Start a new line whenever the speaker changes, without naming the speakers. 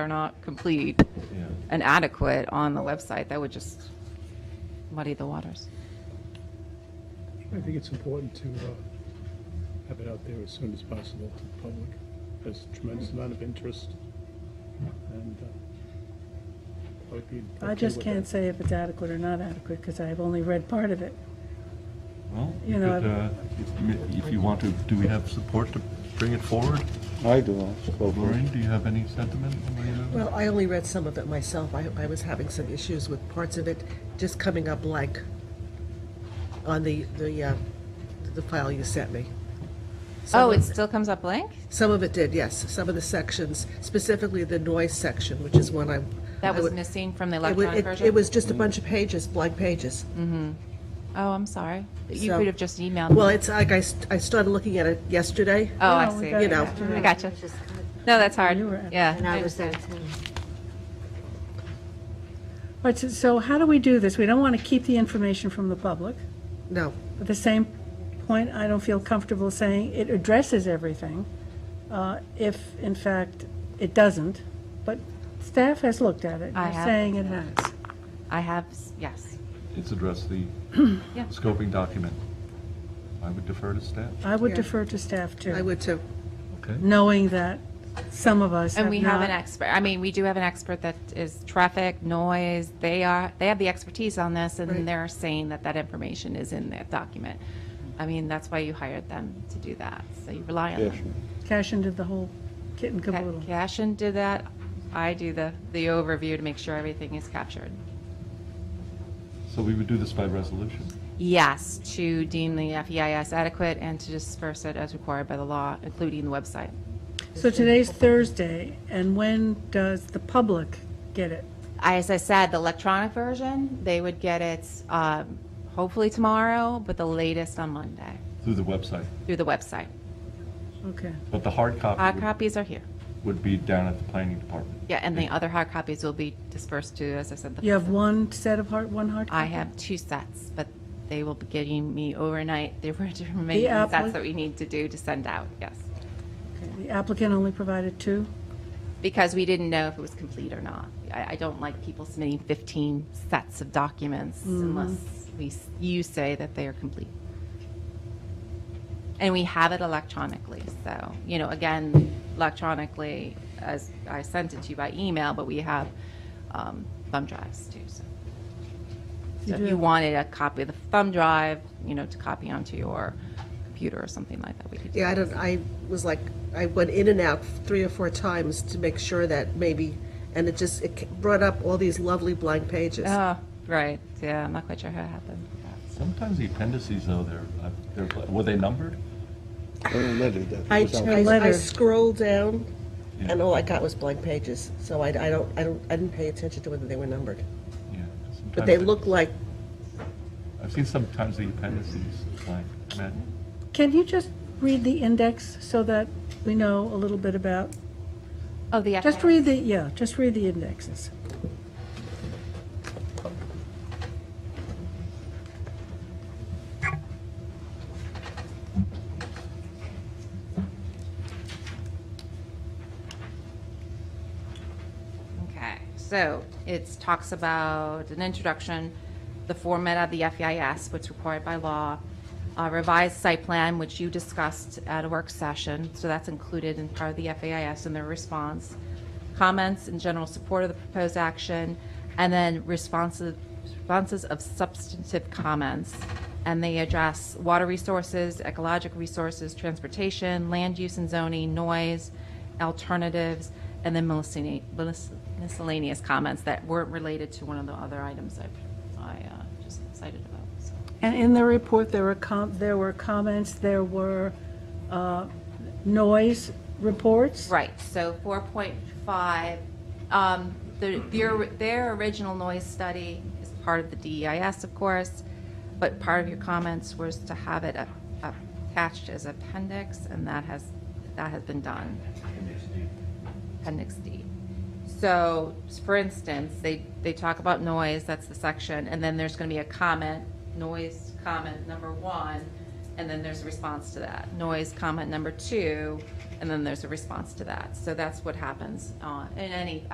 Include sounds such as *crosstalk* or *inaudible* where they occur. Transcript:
are not complete
Yeah.
and adequate on the website, that would just muddy the waters.
I think it's important to uh, have it out there as soon as possible to the public. There's a tremendous amount of interest, and uh, I would be.
I
okay
just
with
can't
that.
say if it's adequate or not adequate, because I've only read part of it.
Well,
You
you
know,
could, uh, if- if you want to, do we have support to bring it forward?
I do, I'll go for it.
Lorraine, do you have any sentiment? on uh, any of that?
Well, I only read some of it myself. I, I was having some issues with parts of it just coming up blank on the the uh, the file you sent me. Some
Oh,
of-
it still comes up blank?
Some of it did, yes. Some of the sections, specifically the noise section, which is one I.
That
I
was
would-
missing from the
It, wa-
electronic
it,
version? Mm-hmm.
it was just a bunch of pages, blank pages.
Oh, I'm sorry. You
So-
could have just emailed
Well,
me.
it's like I, st- I started looking at it yesterday.
Oh, I
No, we
see.
got
You know.
after
I
it.
gotcha.
Just-
No, that's hard.
You were at-
Yeah.
And I was there too.
But, so- so how do we do this? We don't want to keep the information from the public.
No,
At the same point, I don't feel comfortable saying it addresses everything, uh, if in fact it doesn't. But staff has looked at it.
I
You're
have.
Saying it has.
I have, s- yes.
It's address the
Yeah.
scoping document. I would defer to staff.
I would
Yeah.
defer to staff
I
too,
would too.
Okay.
knowing that some of us
And
have
we
not.
have an expert, I mean, we do have an expert that is traffic, noise, they are, they have the expertise on this, and
Right.
they're saying that that information is in that document. I mean, that's why you hired them to do that, so you rely on
Yes,
them.
Cashin did the whole kit and
Ca-
caboodle.
Cashin did that. I do the, the overview to make sure everything is captured.
So we would do this by resolution.
Yes, to deem the FEIS adequate and to disperse it as required by the law, including the website.
So today's Thursday, and when does the public get it?
As I said, the electronic version, they would get it um, hopefully tomorrow, but the latest on Monday
Through the website.
through the website.
Okay.
But the hard
Hard
copy would-
copies are here.
would be down at the planning department.
Yeah, and the other hard copies will be dispersed to, as I said. the
You have one set of hard, one hard copy?
I have two sets, but they will be getting me overnight. They were *laughs* to remain
The
sets
appli-
that we need to do to send out, yes.
The applicant only provided two?
Because we didn't know if it was complete or not. I, I don't like people submitting 15 sets of documents
Mm-hmm.
unless we, s- you say that they are complete. And we have it electronically, so, you know, again, electronically, as I sent it to you by email, but we have um, thumb drives too, so. So if
do
you wanted a copy of the thumb drive, you know, to copy onto your computer or something like that, we could do
Yeah, I
that.
don't, I was like, I went in and out three or four times to make sure that maybe, and it just, it ca- brought up all these lovely blank pages.
Oh, right, yeah, I'm not quite sure how it happened.
Sometimes the appendices, though, they're, uh, they're, were they numbered?
I don't let it, that
I,
was out.
I- I
letter.
scrolled down,
Yeah.
and all I got was blank pages, so I, I don't, I don't, I didn't pay attention to whether they were numbered.
Yeah.
But
sometimes
they look like,
I've seen sometimes the appendices, like, Matt,
Can you just read the index so that we know a little bit about?
Oh, the.
Just read the, yeah, just read the indexes.
Okay, so it talks about an introduction, the format of the FEIS, what's required by law, a revised site plan, which you discussed at a work session, so that's included in part of the FEIS and their response, comments and general support of the proposed action, and then responses, responses of substantive comments. And they address water resources, ecologic resources, transportation, land use and zoning, noise, alternatives, and then miscellane- mis- miscellaneous comments that weren't related to one of the other items I, I uh, just cited about, so.
And in the report, there were com, there were comments, there were, uh, noise reports?
Right, so 4.5, um, the, their, their original noise study is part of the DEIS, of course, but part of your comments was to have it a- attached as appendix, and that has, that has been done. Appendix D. So, for instance, they, they talk about noise, that's the section, and then there's gonna be a comment, noise comment number one, and then there's a response to that. Noise comment number two, and then there's a response to that. So that's what happens, uh, in any